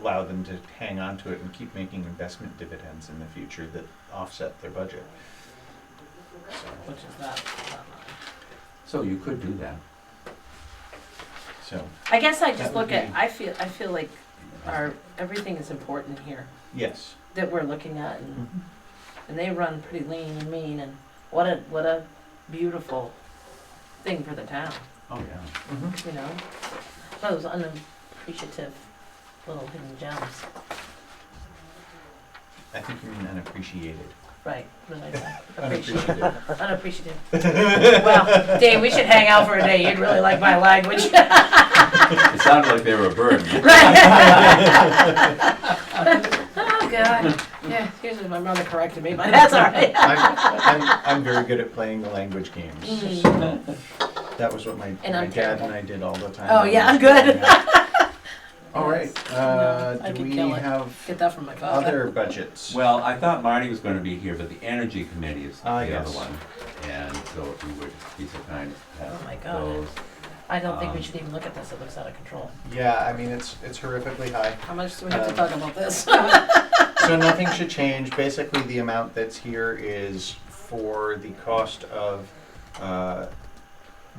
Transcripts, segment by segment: allow them to hang on to it and keep making investment dividends in the future that offset their budget. which is that, that line. So you could do that. So, I guess I That just would look at, be- I feel, I feel like our, everything is important here yes. that we're looking at and, Mm-hmm. and they run pretty lean and mean and what a, what a beautiful thing for the town, Oh, yeah. Mhm. you know? Those unappreciative little hidden gems, I think you mean unappreciated. right, really, appreciative, Unappreciated. unappreciative. Well, Dave, we should hang out for a day, you'd really like my language. It sounded like they were a burden. Oh, God, yeah, excuse me, my mother corrected me, but that's all right. I'm, I'm, I'm very good at playing the language games. Mm. That was what my, And my I'm dad terrible. and I did all the time. Oh, when I yeah, was I'm good. growing up. All right, uh, I do could we kill it. have Get that from my father. other budgets? Well, I thought Marty was gonna be here, but the energy committee is the Ah, other yes. one. And so if you would be so kind as to Oh, my have God. those. I don't think we Um, should even look at this. It looks out of control. Yeah, I mean, it's, it's horrifically high. How much do we have Uh. um, to talk about this? So nothing should change. Basically, the amount that's here is for the cost of uh,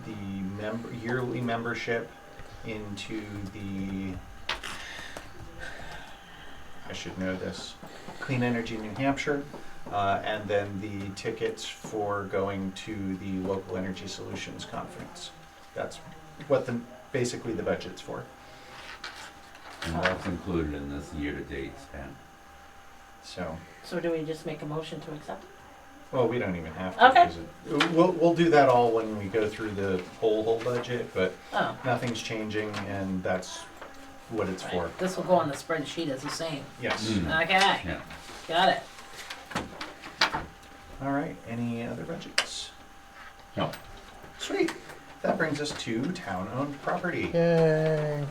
the member yearly membership into the. I should know this. Clean Energy New Hampshire, uh, and then the tickets for going to the local energy solutions conference. That's what the basically the budget's for. And that's included in this year-to-date spend. So. so do we just make a motion to accept? it? Well, we don't even have to. Okay. 'cause it- We'll, we'll do that all when we go through the whole, whole budget, but Oh, nothing's changing and that's what it's for. right. this will go on the spreadsheet as the same. Yes. Mm. Okay, Yeah. got it. All right, any other budgets? No. Sweet. That brings us to town-owned property. Yay.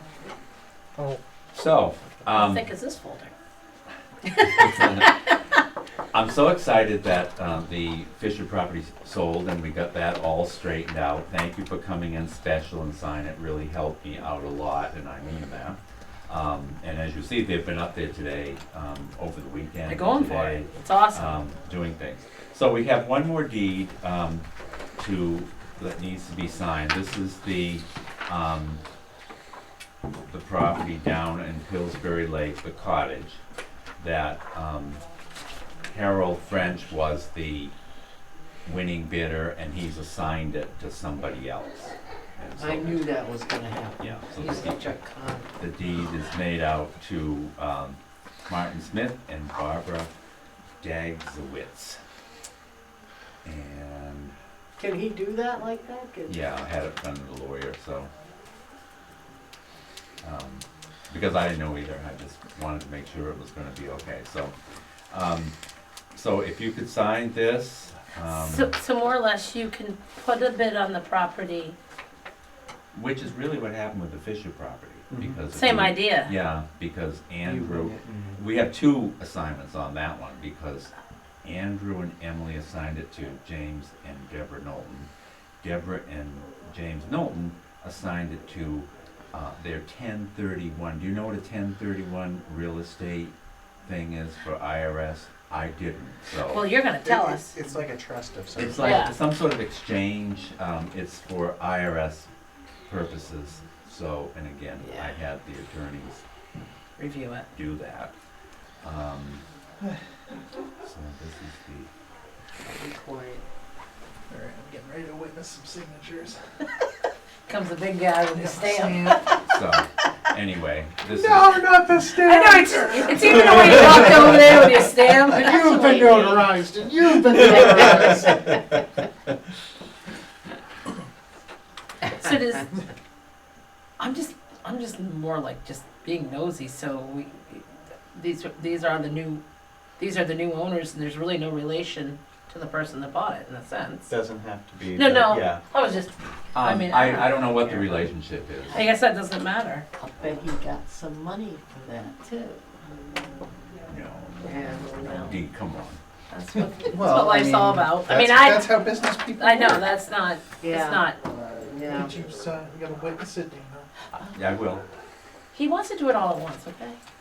Oh, So, How um, thick is this folder? I'm so excited that, um, the Fisher property sold and we got that all straightened out. Thank you for coming in special and sign. It really helped me out a lot and I mean that. Um, and as you see, they've been up there today, um, over the weekend. They're going for today. it. It's awesome. um, doing things. So we have one more deed, um, to, that needs to be signed. This is the, um, the property down in Pillsbury Lake, the cottage, that, um, Harold French was the winning bidder and he's assigned it to somebody else. And so I knew that was gonna happen. Yeah, so He's the- such a con. The deed is made out to, um, Martin Smith and Barbara Dagzowitz. And Can he do that like that? Can- Yeah, I had it done with a lawyer, so. Um, because I didn't know either, I just wanted to make sure it was gonna be okay, so. Um, so if you could sign this, so, um, so more or less, you can put a bid on the property. which is really what happened with the Fisher property, Mhm. because. Same we- idea. Yeah, because Andrew, You- we have two assignments on that one, because Andrew and Emily assigned it to James and Deborah Knowlton. Deborah and James Knowlton assigned it to, uh, their ten thirty-one, do you know what a ten thirty-one real estate thing is for IRS? I didn't, Well, so. you're going to tell It- us. It's like a trust of some It's Yeah. like some sort of exchange, um, it's for IRS purposes, so, and again, I Yeah. had the attorneys Review it. do that. Um, so this is the. Be quiet. all right. I'm getting ready to witness some signatures. Comes the big guy with the stamp. So, anyway, this um, No, not the I know, stamp. it's, it's even the way you walked over there with your stamp. You've That's the way been it is. notarized, and you've been notarized. So does I'm just I'm just more like just being nosy. So we these are- these are the new these are the new owners, and there's really no relation to the person that bought it in a sense. Doesn't have to be. No, but no. Yeah. I was just is, I um, mean, I don't- I, I don't know what the relationship is. I guess that doesn't matter. I'll bet he got some money for that too. No, And, well, Dee, come on. That's what that's Well, I what life's all mean, about. I That's- mean, I That's how business people. I know work. that's not Yeah. it's not. yeah. Did you sign? You gotta witness it, Dana. Yeah, I will. He wants to do it all at once. Okay.